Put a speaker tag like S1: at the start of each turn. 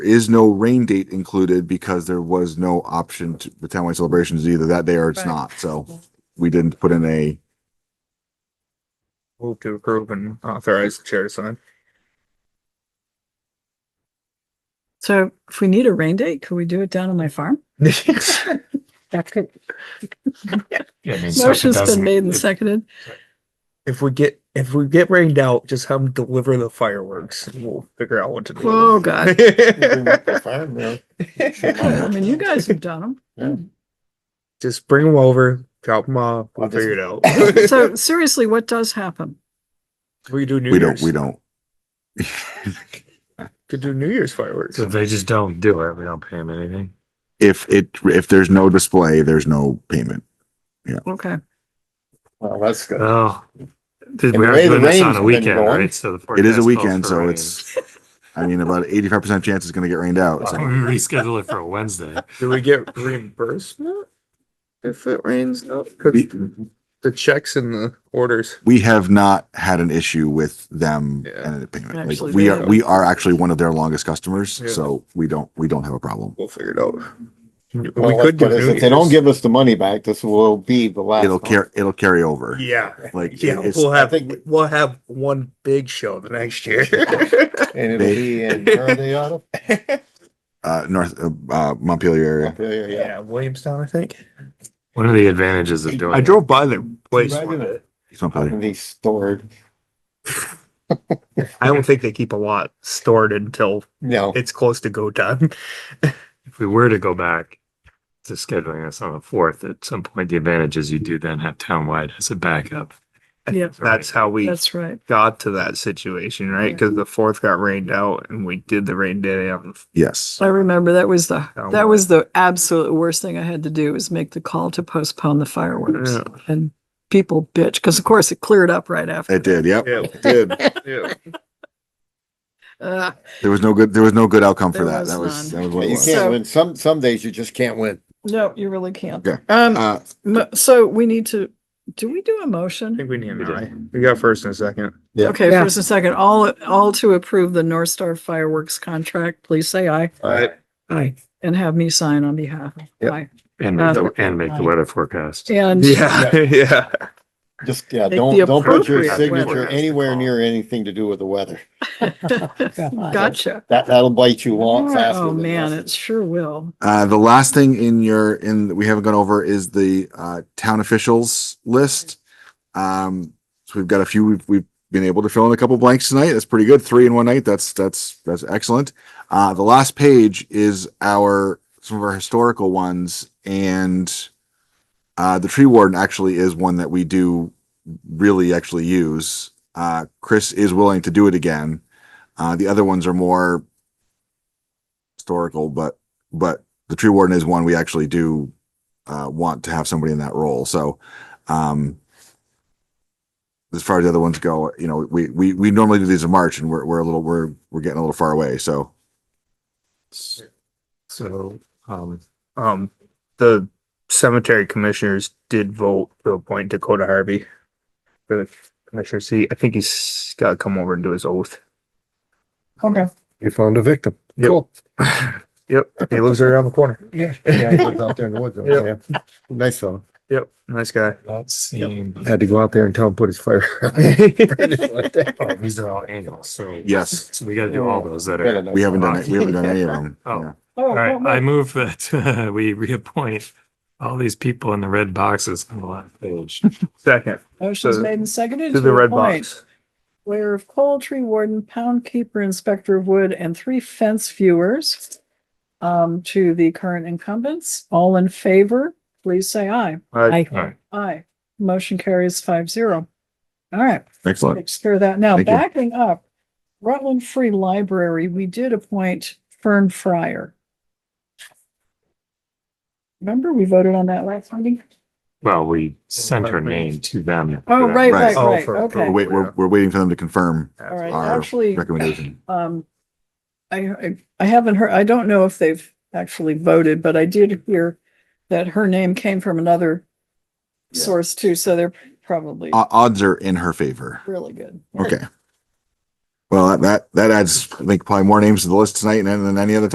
S1: is no rain date included because there was no option to, the townwide celebration is either that day or it's
S2: Right.
S1: not, so we didn't put in a,
S3: Move to approve and authorize the chair to sign.
S2: So if we need a rain date, could we do it down on my farm? That could.
S4: Yeah, I mean, so if it
S2: Motion's been
S4: doesn't-
S2: made and
S4: it-
S2: seconded.
S3: If we get, if we get rained out, just have them deliver the fireworks and we'll figure out what to do.
S2: Oh, God. I
S5: Well,
S2: mean, you guys have done
S3: Just bring them over, drop them off, we'll figure it out.
S2: them. So seriously, what does happen?
S3: We do New
S1: we don't,
S3: Year's.
S1: we don't.
S3: Could do New Year's fireworks.
S4: So if they just don't do it, we don't pay them anything.
S1: If it, if there's no display, there's no payment.
S2: Okay.
S5: that's good.
S1: Uh,
S4: Well, Oh. did we
S5: the way
S4: already
S5: the
S4: doing this on
S5: rain's
S4: a
S5: been
S4: weekend,
S5: going-
S4: right? So the
S1: It is a
S4: forecast calls
S1: weekend,
S4: for
S1: so
S4: rain.
S1: it's, I mean, about eighty-five percent chance it's gonna get rained out.
S4: Why
S1: so-
S4: don't we reschedule it for a Wednesday.
S3: Do we get reimbursement if it rains out? 'Cause the checks and the orders.
S1: We have not had an issue with them
S3: Yeah.
S1: and the payment. Like,
S2: Actually,
S1: we
S2: they
S1: are,
S2: have.
S1: we are actually one of their longest customers,
S3: Yeah.
S1: so we don't, we don't have a problem.
S3: We'll figure it out.
S5: Well,
S3: We
S5: that's
S3: could do
S5: good, is
S3: New
S5: If they don't
S3: Year's.
S5: give us the money back, this will be the last.
S1: It'll
S5: one.
S1: carry, it'll carry over.
S3: Yeah.
S1: Like, it-
S3: Yeah,
S1: it's-
S3: we'll
S5: I
S3: have,
S5: think-
S3: we'll have one big show the next year.
S5: And it'll be in, where are they out of?
S1: uh, north, uh, uh, Montpelier area.
S5: Montpelier, yeah.
S3: Yeah, Williamstown, I think.
S4: One of the advantages of doing.
S3: I
S4: it-
S3: drove by their place.
S5: Imagine
S3: one day.
S1: It's Montpelier.
S5: And they stored,
S3: I don't think they keep a lot stored until
S5: no,
S3: it's close to go time.
S4: If we were to go back to scheduling this on the fourth, at some point, the advantage is you do then have townwide as a backup.
S2: Yeah.
S3: That's how we
S2: That's right.
S3: got to that situation, right? Because the fourth got rained out and we did the rain day on
S1: Yes.
S2: I remember that was the,
S3: Oh,
S2: that
S3: my.
S2: was the absolute worst thing I had to do was make the call to postpone the fireworks.
S3: Yeah.
S2: And people bitch, because of course it cleared up right after.
S1: It did. Yep.
S3: Yeah.
S1: It did.
S3: Yeah.
S2: Uh,
S1: There was no good, there was no good outcome for
S2: There
S1: that.
S2: was
S1: That was,
S2: none.
S1: that was
S5: but
S1: what it
S5: you
S1: was.
S2: So-
S5: can't win. Some, some days you just can't win.
S2: no, you really can't.
S1: Okay.
S2: Um,
S1: Uh,
S2: mo- so we need to, do we do a
S3: I
S2: motion?
S3: think we need
S4: We
S3: an
S4: did.
S3: eye. We got first and second.
S5: Yeah.
S2: Okay,
S3: Yeah.
S2: first and second, all, all to approve the North Star fireworks contract, please say aye. Aye. And have me sign on behalf. of
S5: Yep.
S2: Aye.
S4: And, make the-
S2: Uh,
S4: and make the weather forecast.
S2: And
S3: Yeah, yeah.
S5: Just, yeah,
S2: Take
S5: don't,
S2: the
S5: don't put your
S2: appropriate
S4: weather.
S5: signature anywhere near anything to do with the weather.
S2: gotcha.
S5: That, that'll bite you long faster.
S2: Oh,
S5: than
S2: man,
S5: this.
S2: it sure will.
S1: Uh, the last thing in your, in, that we haven't gone over is the, uh, town officials list. Um, so we've got a few, we've, we've been able to fill in a couple blanks tonight. That's pretty good. Three in one night. That's, that's, that's excellent. Uh, the last page is our, some of our historical ones and uh, the tree warden actually is one that we do really actually use. Uh, Chris is willing to do it again. Uh, the other ones are more historical, but, but the tree warden is one we actually do uh, want to have somebody in that role. So, um, as far as the other ones go, you know, we, we, we normally do these in March and we're, we're a little, we're, we're getting a little far away. So
S4: So, um,
S3: Um, the cemetery commissioners did vote to appoint Dakota Harvey for the commissioner seat. I think he's got to come over and do his oath.
S2: Okay.
S6: You found a victim.
S3: Yep.
S6: Cool.
S3: Yep, he lives right around the corner.
S6: Yeah. Yeah, he lives out there in the woods.
S3: Yeah.
S6: yeah. Nice fellow.
S3: Yep, nice guy.
S4: that seemed.
S6: Had to go out there and tell him put his fire.
S4: Oh, these are all annual, so.
S1: yes,
S4: So we gotta do all those that
S5: Good
S4: are.
S5: enough.
S1: we haven't done, it- we haven't done any of them.
S4: Oh.
S1: Yeah.
S4: All right, I move that uh, we reappoint all these people in the red boxes on the last page.
S3: Second,
S2: Motion's
S3: to-
S2: made and seconded.
S3: to the red
S2: appoint
S3: box.
S2: Layer of coal, tree warden, pound keeper, inspector of wood, and three fence viewers um, to the current incumbents. All in favor, please say aye.
S3: I
S4: All right,
S2: Aye. Motion carries five zero. All right.
S1: Excellent.
S2: takes care of that. Now,
S1: Thank you.
S2: backing up, Rutland Free Library, we did appoint Fern Fryer. Remember, we voted on that last meeting?
S4: well, we sent her name to them.
S2: Oh,
S1: Right.
S2: right, right,
S3: Oh,
S2: right,
S3: for-
S2: okay.
S1: We're, wait, we're, we're waiting for them to confirm
S2: All right,
S1: our
S2: actually,
S1: recommendation.
S2: um, I, I, I haven't heard, I don't know if they've actually voted, but I did hear that her name came from another
S1: Yeah.
S2: source too, so they're probably
S1: O- odds are in her favor.
S2: really good.
S1: Okay. Well, that, that adds, I think, probably more names to the list tonight than, than any other time.